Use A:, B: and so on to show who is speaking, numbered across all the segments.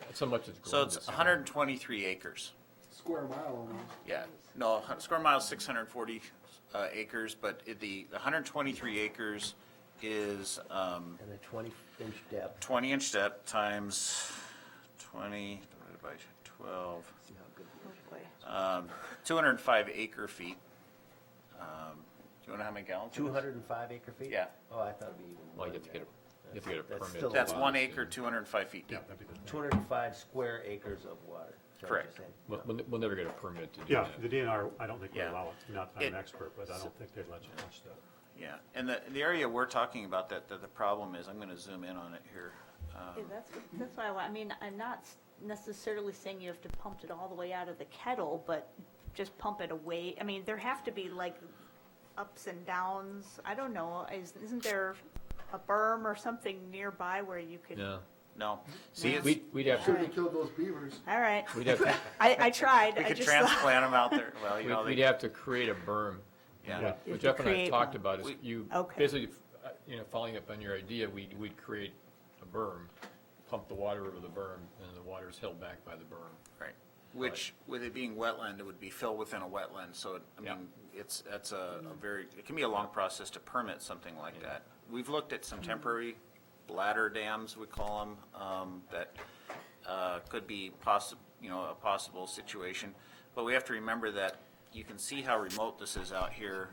A: That's how much it's grown.
B: So it's
A: this year.
B: 123 acres.
C: Square mile almost.
B: Yeah, no, hu- square mile is 640 uh, acres, but it- the the 123 acres is um,
D: and a twenty inch depth.
B: 20 inch depth times 20 divided by 12,
D: See how good it is.
E: boy.
B: um, 205 acre feet. Um, Do you know how many gallons? it is?
D: Two hundred and five acre feet?
B: Yeah.
D: Oh, I thought it'd be even.
A: Well, you have to get a, you have to get a
D: That's
A: permit.
D: still
A: to
B: That's
A: allow
B: one
A: this
B: acre,
A: in.
B: 205 feet
A: Yeah,
B: deep.
A: that'd be good.
D: Two hundred and five square acres of water. is that what you're
B: Correct.
D: saying?
A: We'll, we'll- we'll never get a permit to do
F: Yeah,
A: that.
F: the DNR, I don't think would
B: Yeah.
F: allow it, not, I'm
B: It-
F: an expert, but I don't think they'd let you touch that.
B: Yeah, and the, the area we're talking about that, that the problem is, I'm gonna zoom in on it here. Um,
E: Yeah, that's, that's why I want, I mean, I'm not s- necessarily saying you have to pump it all the way out of the kettle, but just pump it away. I mean, there have to be like ups and downs. I don't know, is, isn't there a berm or something nearby where you could?
A: No,
B: No, see, it's,
A: we'd,
B: we
A: we'd have
C: Should
A: to,
C: have killed those beavers.
E: All right,
A: we'd have, to-
E: I, I tried, I
B: could
E: just thought,
B: transplant them out there, well, you know,
A: we'd- we'd
B: they,
A: have to create a berm.
B: yeah,
E: You
A: What
E: could
A: Jeff and I
E: create
A: talked
E: one.
A: about is
B: We-
A: you,
E: Okay.
A: basically, uh, you know, following up on your idea, we, we'd create a berm, pump the water over the berm, and the water's held back by the berm.
B: right. Which, with it being wetland, it would be filled within a wetland, so, it- I
A: Yeah.
B: mean, it's, that's a a very, it can be a long process to permit something like that. We've looked at some temporary bladder dams, we call them, um, that, uh, could be possi, you know, a possible situation. But we have to remember that you can see how remote this is out here.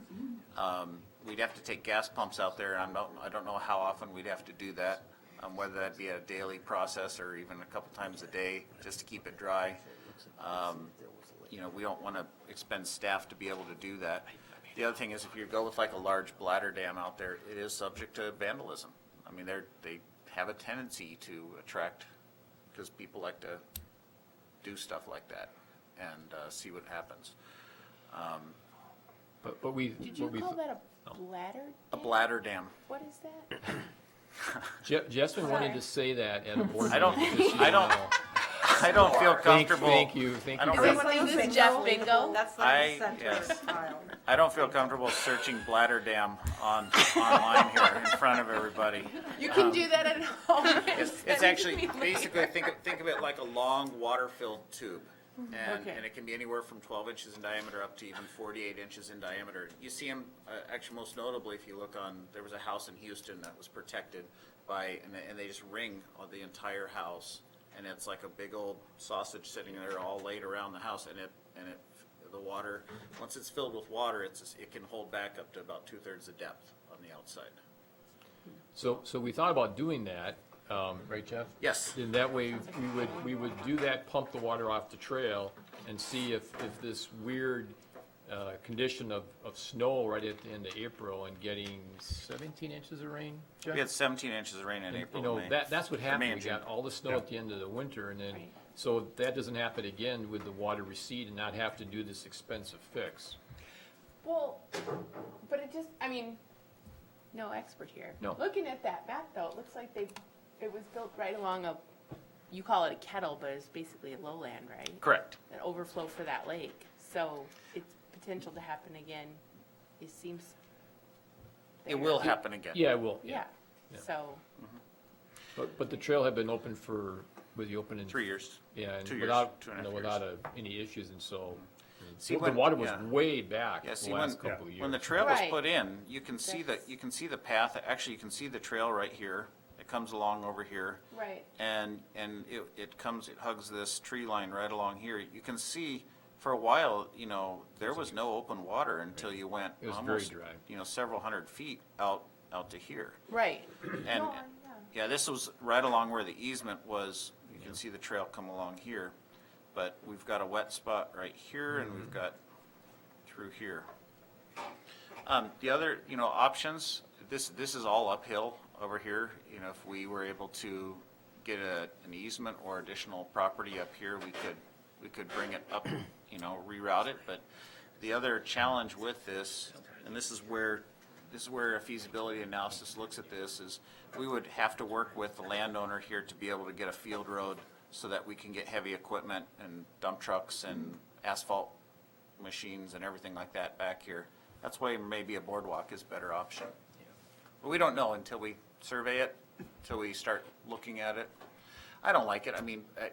B: Um, we'd have to take gas pumps out there, and I don't, I don't know how often we'd have to do that, um, whether that be a daily process or even a couple times a day, just to keep it dry. Um, you know, we don't wanna expend staff to be able to do that. The other thing is if you go with like a large bladder dam out there, it is subject to vandalism. I mean, they're, they have a tendency to attract, because people like to do stuff like that and uh, see what happens.
A: But, but we,
G: Did you
A: what we,
G: call that a bladder?
B: A
G: dam?
B: bladder dam.
G: What is that?
A: Jeff, Jeff's been wanting
G: Sorry.
A: to say that at a board meeting.
B: I don't-
A: just so you
B: I don't
A: know.
B: I don't feel
A: Thank,
B: comfortable.
A: thank you, thank
B: I
A: you.
B: don't
A: for-
B: really-
G: Everyone thinks it's Jeff Bingo.
E: that's
B: I-
E: like the center
B: yes.
E: file.
B: I don't feel comfortable searching bladder dam on, online here in front of everybody.
G: You can do that at home.
B: It's, it's actually, basically, think of, think of it like a long water-filled tube. And,
E: Okay.
B: and it can be anywhere from twelve inches in diameter up to even forty-eight inches in diameter. You see them, uh, actually most notably, if you look on, there was a house in Houston that was protected by, and they, and they just ring on the entire house. And it's like a big old sausage sitting there all laid around the house and it, and it, the water, once it's filled with water, it's, it can hold back up to about two-thirds the depth on the outside.
A: So, so we thought about doing that, um, right, Jeff?
B: Yes.
A: In that way, we would, we would do that, pump the water off the trail and see if, if this weird, uh, condition of, of snow right at the end of April and getting seventeen inches of rain, Jeff?
B: We had seventeen inches of rain in April,
A: You know,
B: May.
A: that, that's what happened.
B: May
A: We
B: and June.
A: got all the snow at the end of the winter and then, so that doesn't happen again with the water recede and not have to do this expensive fix.
G: Well, but it just, I mean, no expert here.
A: No.
G: Looking at that map though, it looks like they, it was built right along a, you call it a kettle, but it's basically lowland, right?
B: Correct.
G: An overflow for that lake. So it's potential to happen again. It seems.
B: It
G: there.
B: will happen again.
A: Yeah, well,
G: Yeah.
A: Yeah.
G: So,
A: but, but the trail had been open for, with the open in.
B: Three years.
A: Yeah, and
B: Two years,
A: without,
B: two
A: you
B: and a
A: know,
B: half
A: without
B: years.
A: a- any issues, and so,
B: Mm-hmm. See,
A: well, the
B: when-
A: water was
B: yeah.
A: way back
B: Yeah,
A: the
B: see, when,
A: last couple of years.
B: when the trail was
G: Right.
B: put in, you can see the,
G: That's-
B: you can see the path, actually, you can see the trail right here. It comes along over here.
G: Right.
B: And, and it, it comes, it hugs this tree line right along here. You can see, for a while, you know, there was no open water until you went
A: It was very
B: almost,
A: dry.
B: you know, several hundred feet out, out to here.
G: right.
B: And,
G: Well, yeah.
B: yeah, this was right along where the easement was, you can see the trail come along here. But we've got a wet spot right here and we've got through here. Um, the other, you know, options, this, this is all uphill over here. You know, if we were able to get a, an easement or additional property up here, we could, we could bring it up, you know, reroute it. But the other challenge with this, and this is where, this is where a feasibility analysis looks at this, is we would have to work with the landowner here to be able to get a field road so that we can get heavy equipment and dump trucks and asphalt machines and everything like that back here. That's why maybe a boardwalk is a better option. But we don't know until we survey it, until we start looking at it. I don't like it. I mean, I-